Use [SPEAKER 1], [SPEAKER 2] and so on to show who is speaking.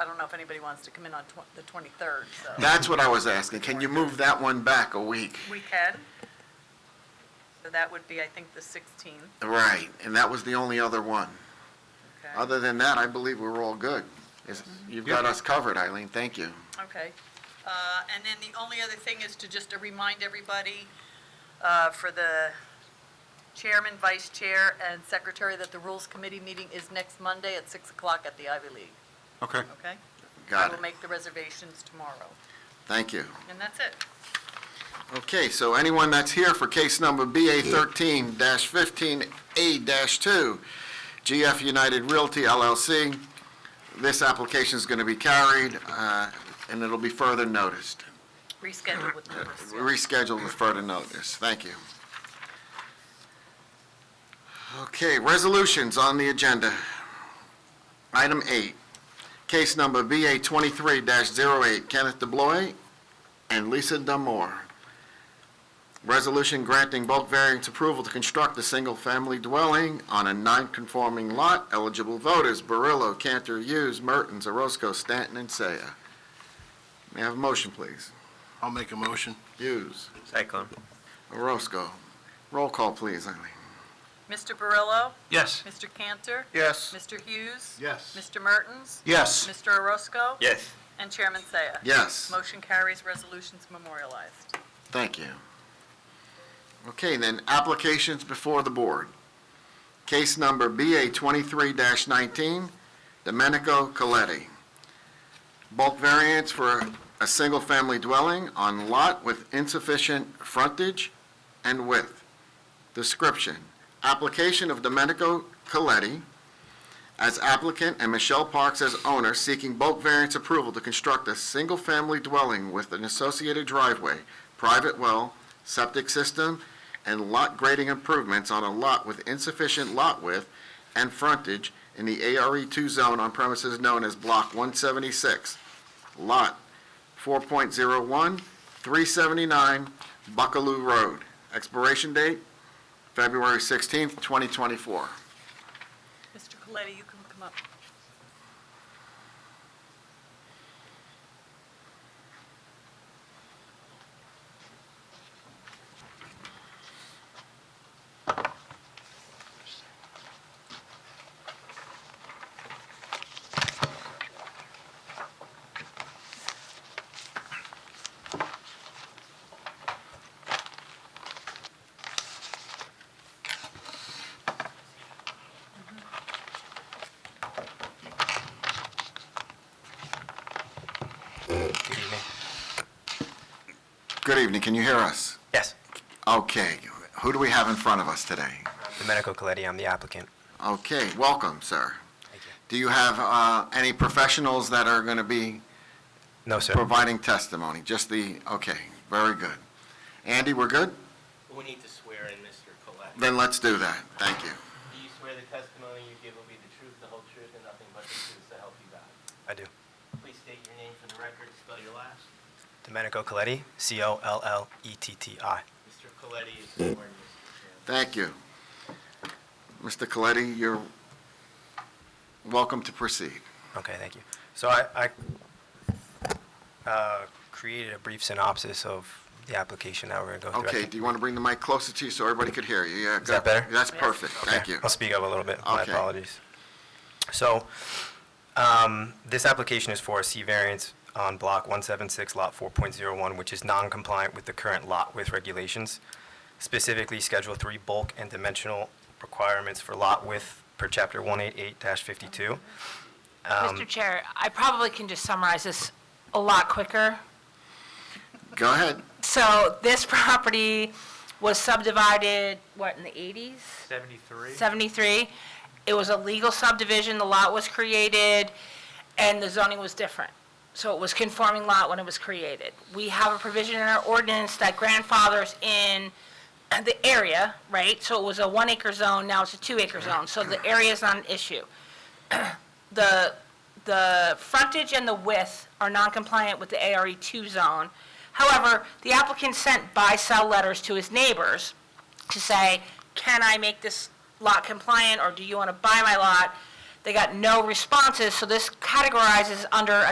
[SPEAKER 1] I don't know if anybody wants to come in on tw- the 23rd, so.
[SPEAKER 2] That's what I was asking. Can you move that one back a week?
[SPEAKER 1] We can. So that would be, I think, the 16th.
[SPEAKER 2] Right, and that was the only other one.
[SPEAKER 1] Okay.
[SPEAKER 2] Other than that, I believe we were all good. Is- You've got us covered, Eileen, thank you.
[SPEAKER 1] Okay. Uh, And then the only other thing is to just to remind everybody uh, for the chairman, vice chair, and secretary that the Rules Committee meeting is next Monday at 6 o'clock at the Ivy League,
[SPEAKER 3] Okay.
[SPEAKER 1] okay? I
[SPEAKER 2] Got it,
[SPEAKER 1] will make the reservations tomorrow.
[SPEAKER 2] thank you.
[SPEAKER 1] And that's it.
[SPEAKER 2] Okay, so anyone that's here for case number BA thirteen fifteen A two, GF United Realty LLC, this application is going to be carried, uh, and it'll be further noticed,
[SPEAKER 1] Reschedule with notice.
[SPEAKER 2] rescheduled with further notice. Thank you. Okay, resolutions on the agenda. Item eight, case number BA twenty-three 8 Kenneth DeBloy and Lisa Damore. Resolution granting bulk variance approval to construct a single-family dwelling on a non-conforming lot. Eligible voters, Barillo, Cantor, Hughes, Mertens, Orozco, Stanton, and Seiya. May I have a motion, please?
[SPEAKER 4] I'll make a motion.
[SPEAKER 2] Hughes,
[SPEAKER 5] Second.
[SPEAKER 2] Orozco. Roll call, please, Eileen.
[SPEAKER 1] Mr. Barillo?
[SPEAKER 3] Yes.
[SPEAKER 1] Mr. Cantor?
[SPEAKER 3] Yes.
[SPEAKER 1] Mr. Hughes?
[SPEAKER 4] Yes.
[SPEAKER 1] Mr. Mertens?
[SPEAKER 3] Yes.
[SPEAKER 1] Mr. Orozco?
[SPEAKER 5] Yes.
[SPEAKER 1] And Chairman Saya?
[SPEAKER 2] Yes,
[SPEAKER 1] Motion carries, resolutions memorialized.
[SPEAKER 2] thank you. Okay, then, applications before the board. Case number BA twenty-three nineteen, Domenico Coletti. Bulk variance for a single-family dwelling on lot with insufficient frontage and width. Description, application of Domenico Coletti as applicant and Michelle Parks as owner seeking bulk variance approval to construct a single-family dwelling with an associated driveway, private well, septic system, and lot grading improvements on a lot with insufficient lot width and frontage in the ARE2 zone on premises known as Block 176, Lot 4.01, 379 Buckaloo Road. Expiration date, February 16th, 2024.
[SPEAKER 1] Mr. Coletti, you can come up.
[SPEAKER 2] Good evening, can you hear us?
[SPEAKER 5] Yes.
[SPEAKER 2] Okay, who do we have in front of us today?
[SPEAKER 5] Domenico Coletti, I'm the applicant.
[SPEAKER 2] Okay, welcome, sir.
[SPEAKER 5] Thank you.
[SPEAKER 2] Do you have uh, any professionals that are going to be
[SPEAKER 5] No, sir.
[SPEAKER 2] providing testimony? Just the, okay, very good. Andy, we're good?
[SPEAKER 6] We need to swear in Mr. Collette.
[SPEAKER 2] Then let's do that. Thank you.
[SPEAKER 6] Do you swear the testimony you give will be the truth, the whole truth, and nothing but the truth to help you God?
[SPEAKER 5] I do.
[SPEAKER 6] Please state your name for the record, spell your last.
[SPEAKER 5] Domenico Coletti, E C-O-L-L-E-T-T-I.
[SPEAKER 6] Mr. Coletti is sworn, Mr. Chairman.
[SPEAKER 2] Thank you. Mr. Coletti, you're welcome to proceed.
[SPEAKER 5] Okay, thank you. So I, I uh, created a brief synopsis of the application that we're going to go through. I
[SPEAKER 2] Okay,
[SPEAKER 5] think-
[SPEAKER 2] do you want to bring the mic closer to you so everybody could hear you? Yeah,
[SPEAKER 5] that better?
[SPEAKER 2] That's perfect,
[SPEAKER 5] Okay,
[SPEAKER 2] thank you.
[SPEAKER 5] I'll speak up a little bit. My
[SPEAKER 2] Okay.
[SPEAKER 5] apologies. So, um, this application is for a C variance on block 176, lot 4.01, which is non-compliant with the current lot width regulations, specifically Schedule 3 bulk and dimensional requirements for lot width per Chapter 188-52.
[SPEAKER 7] Mr. Chair, I probably can just summarize this a lot quicker.
[SPEAKER 2] Go ahead.
[SPEAKER 7] So this property was subdivided, what, in the 80s? 73. 73. It was a legal subdivision, the lot was created, and the zoning was different. So it was conforming lot when it was created. We have a provision in our ordinance that grandfathers in the area, right? So it was a one acre zone, now it's a two acre zone, so the area is not an issue. The, the frontage and the width are non-compliant with the ARE2 zone. However, the applicant sent buy-sell letters to his neighbors to say, can I make this lot compliant, or do you want to buy my lot? They got no responses, so this categorizes under